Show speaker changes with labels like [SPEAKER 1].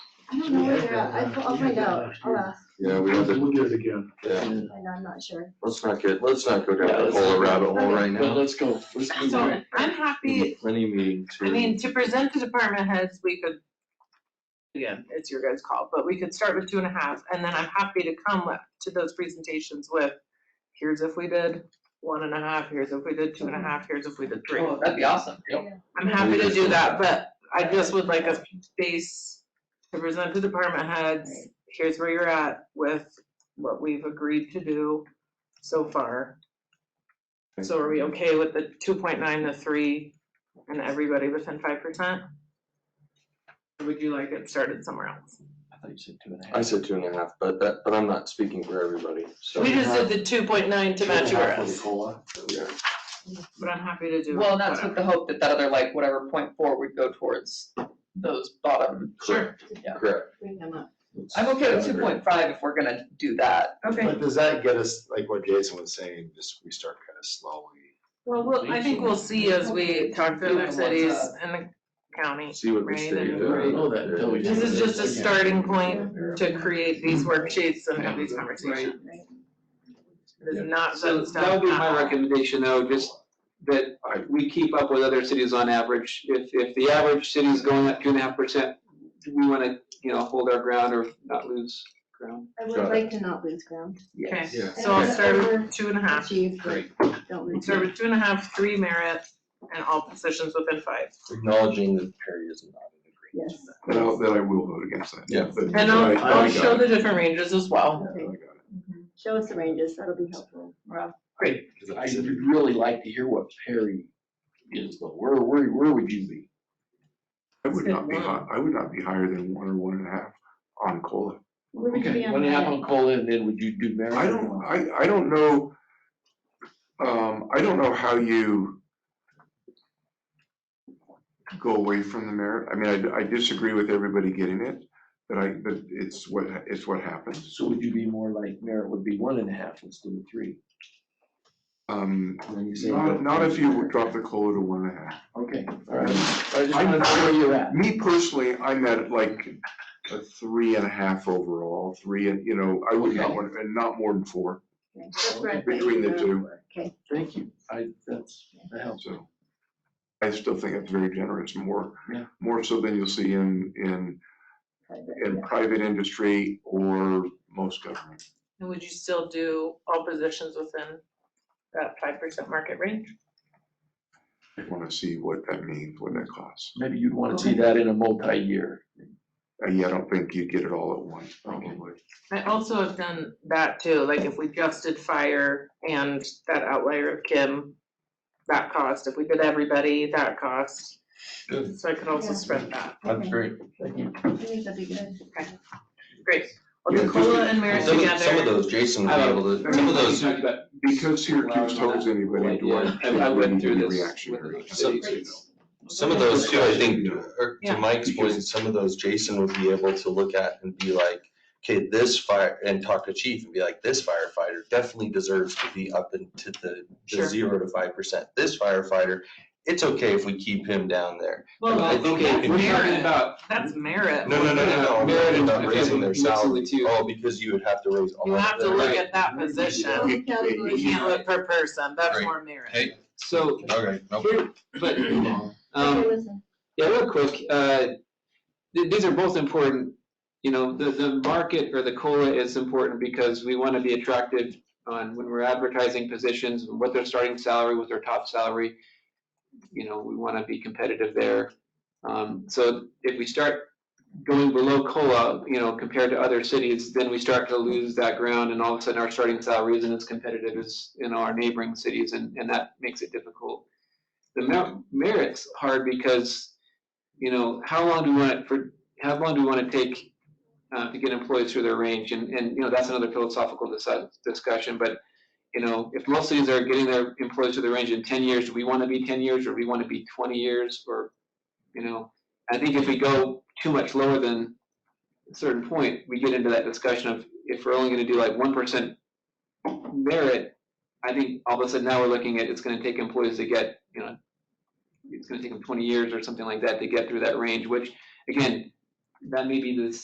[SPEAKER 1] I don't know either, I- I'll find out, I'll ask,
[SPEAKER 2] Yeah, we have to,
[SPEAKER 3] We'll get it again.
[SPEAKER 2] yeah,
[SPEAKER 1] I know, I'm not sure.
[SPEAKER 2] let's not get, let's not go down
[SPEAKER 3] Yeah,
[SPEAKER 2] the
[SPEAKER 3] let's-
[SPEAKER 2] whole rabbit hole right
[SPEAKER 3] But
[SPEAKER 2] now.
[SPEAKER 3] let's go, let's move
[SPEAKER 4] So
[SPEAKER 3] on.
[SPEAKER 4] I'm happy,
[SPEAKER 2] Many meetings.
[SPEAKER 4] I mean, to present to department heads, we could, again, it's your guys' call, but we could start with two and a half, and then I'm happy to come with- to those presentations with, here's if we did one and a half, here's if we did two and a half, here's if we did three.
[SPEAKER 5] Oh, that'd be awesome, yep.
[SPEAKER 4] I'm happy to do that, but I just would like a space to present to department heads, here's where you're at with what we've agreed to do so far. So are we okay with the two point nine, the three, and everybody within five percent? Or would you like it started somewhere else?
[SPEAKER 3] I thought you said two and a half.
[SPEAKER 2] I said two and a half, but that, but I'm not speaking for everybody, so.
[SPEAKER 4] We just did the two point nine to
[SPEAKER 3] Two and a
[SPEAKER 4] match
[SPEAKER 3] half for the
[SPEAKER 4] yours,
[SPEAKER 3] COLA.
[SPEAKER 2] Yeah.
[SPEAKER 4] but I'm happy to do.
[SPEAKER 5] Well, and that's with
[SPEAKER 4] whatever.
[SPEAKER 5] the hope that that other, like, whatever point four would go towards those bottom.
[SPEAKER 4] Sure,
[SPEAKER 2] Correct.
[SPEAKER 1] Bring them up.
[SPEAKER 5] I'm okay with two point five if we're gonna do that.
[SPEAKER 4] okay.
[SPEAKER 6] But does that get us, like what Jason was saying, just we start kind of slowly?
[SPEAKER 4] Well, we'll, I think we'll see as we talk to other cities and the county.
[SPEAKER 2] See what uh, the
[SPEAKER 4] Right,
[SPEAKER 2] state
[SPEAKER 4] and-
[SPEAKER 2] does.
[SPEAKER 3] Right. Know that until we-
[SPEAKER 4] This is just a starting point to
[SPEAKER 3] Yeah.
[SPEAKER 4] create these worksheets and have these conversations.
[SPEAKER 1] Right.
[SPEAKER 4] It is not set
[SPEAKER 7] So
[SPEAKER 4] in stone.
[SPEAKER 7] that would be
[SPEAKER 4] at all.
[SPEAKER 7] my recommendation though, just that we keep up with other cities on average. If, if the average city is going up two and a half percent, we want to, you know, hold our ground or not lose ground.
[SPEAKER 1] I would
[SPEAKER 2] Got it.
[SPEAKER 1] like to not lose ground.
[SPEAKER 4] Okay,
[SPEAKER 2] Yeah.
[SPEAKER 4] so I'll start with two and a half,
[SPEAKER 1] Achieve, but don't lose.
[SPEAKER 4] start with two and a half, three merit, and all positions within five.
[SPEAKER 2] Acknowledging that Perry is not in agreement.
[SPEAKER 1] Yes.
[SPEAKER 8] Then I'll, then I will vote against that.
[SPEAKER 2] Yeah.
[SPEAKER 8] But-
[SPEAKER 4] And
[SPEAKER 8] but I-
[SPEAKER 4] I'll,
[SPEAKER 8] but I
[SPEAKER 4] I'll
[SPEAKER 8] got
[SPEAKER 4] show
[SPEAKER 8] it.
[SPEAKER 4] the different ranges as well.
[SPEAKER 8] Yeah, I got it.
[SPEAKER 1] Show us the ranges, that'll be helpful.
[SPEAKER 3] Great, because I would really like to hear what Perry is, though. Where, where, where would you be?
[SPEAKER 8] I would
[SPEAKER 4] Said
[SPEAKER 8] not be
[SPEAKER 4] one.
[SPEAKER 8] high, I would not be higher than one or one and a half on COLA.
[SPEAKER 1] Where would you be
[SPEAKER 3] Okay,
[SPEAKER 1] on
[SPEAKER 3] one and a half
[SPEAKER 1] that?
[SPEAKER 3] on COLA, and then would you do merit?
[SPEAKER 8] I don't, I, I don't know, um, I don't know how you go away from the merit. I mean, I, I disagree with everybody getting it, but I, but it's what, it's what happens.
[SPEAKER 3] So would you be more like merit would be one and a half instead of three?
[SPEAKER 8] Um,
[SPEAKER 3] And then you say go-
[SPEAKER 8] not, not if you drop the COLA to one and a half.
[SPEAKER 3] Okay, all right. I just wanted to know where you're at.
[SPEAKER 8] Me personally, I'm at like a three and a half overall, three and, you know, I would not
[SPEAKER 3] Okay.
[SPEAKER 8] want, and not more than four.
[SPEAKER 1] Okay, that's where I
[SPEAKER 8] Between the
[SPEAKER 1] think
[SPEAKER 8] two.
[SPEAKER 1] we're- Okay,
[SPEAKER 3] Thank you. I, that's, that helps.
[SPEAKER 8] So I still think it's very generous, more,
[SPEAKER 3] Yeah.
[SPEAKER 8] more so than you'll see in, in,
[SPEAKER 1] private,
[SPEAKER 8] in
[SPEAKER 1] yeah.
[SPEAKER 8] private industry or most government.
[SPEAKER 4] And would you still do all positions within that five percent market range?
[SPEAKER 8] I want to see what that means, what that costs.
[SPEAKER 3] Maybe you'd want to see that in a multi-year.
[SPEAKER 8] And yeah, I don't think you'd get it all at once, probably.
[SPEAKER 4] I also have done that too, like if we just did fire and that outlier of Kim, that cost, if we did everybody, that cost.
[SPEAKER 2] Good.
[SPEAKER 4] So I could also
[SPEAKER 1] Yeah.
[SPEAKER 4] spread that,
[SPEAKER 2] That's great.
[SPEAKER 1] I think that'd be good.
[SPEAKER 4] great. I'll
[SPEAKER 8] Yeah,
[SPEAKER 4] do
[SPEAKER 8] just-
[SPEAKER 4] COLA and merit
[SPEAKER 2] Some of, some of
[SPEAKER 4] together, Oh.
[SPEAKER 2] those Jason would be able to, some of those,
[SPEAKER 7] Talked about-
[SPEAKER 8] Because Syracuse
[SPEAKER 7] Well,
[SPEAKER 8] holds anybody to
[SPEAKER 7] Yeah, I I went through this with
[SPEAKER 8] reactionary.
[SPEAKER 7] another city, so you know.
[SPEAKER 2] some of those too, I think, or
[SPEAKER 4] Yeah.
[SPEAKER 2] to Mike's point, some of those Jason would be able to look at and be like, okay, this fire, and talk to chief and be like, this firefighter definitely deserves to be up into the,
[SPEAKER 4] Sure.
[SPEAKER 2] the zero to five percent. This firefighter, it's okay if we keep him down there.
[SPEAKER 4] Well,
[SPEAKER 2] I think it-
[SPEAKER 4] that's
[SPEAKER 7] We're talking
[SPEAKER 4] merit,
[SPEAKER 7] about
[SPEAKER 4] that's merit.
[SPEAKER 2] No, no, no, no, no,
[SPEAKER 7] Merit
[SPEAKER 2] I'm
[SPEAKER 7] and-
[SPEAKER 2] not raising their
[SPEAKER 7] mixing the
[SPEAKER 2] salary,
[SPEAKER 7] two.
[SPEAKER 2] oh, because you would have to raise all
[SPEAKER 4] You
[SPEAKER 2] of
[SPEAKER 4] have to
[SPEAKER 2] their-
[SPEAKER 4] look
[SPEAKER 7] Right.
[SPEAKER 4] at that position,
[SPEAKER 1] Both categories.
[SPEAKER 4] you can't look per person, that's
[SPEAKER 2] Right.
[SPEAKER 4] more merit.
[SPEAKER 2] Hey.
[SPEAKER 7] So,
[SPEAKER 2] Okay, no.
[SPEAKER 7] here, but,
[SPEAKER 1] Okay,
[SPEAKER 7] um,
[SPEAKER 1] listen.
[SPEAKER 7] yeah, real quick, uh, th- these are both important. You know, the, the market or the COLA is important because we want to be attractive on when we're advertising positions, what their starting salary, what their top salary. You know, we want to be competitive there. Um, so if we start going below COLA, you know, compared to other cities, then we start to lose that ground and all of a sudden our starting salary isn't as competitive as in our neighboring cities and, and that makes it difficult. The mer- merit's hard because, you know, how long do we want it for, how long do we want to take uh, to get employees through their range? And, and, you know, that's another philosophical disi- discussion, but, you know, if most cities are getting their employees through their range in ten years, do we want to be ten years or do we want to be twenty years or, you know? I think if we go too much lower than a certain point, we get into that discussion of if we're only gonna do like one percent merit, I think all of a sudden now we're looking at it's gonna take employees to get, you know, it's gonna take them twenty years or something like that to get through that range, which, again, that may be the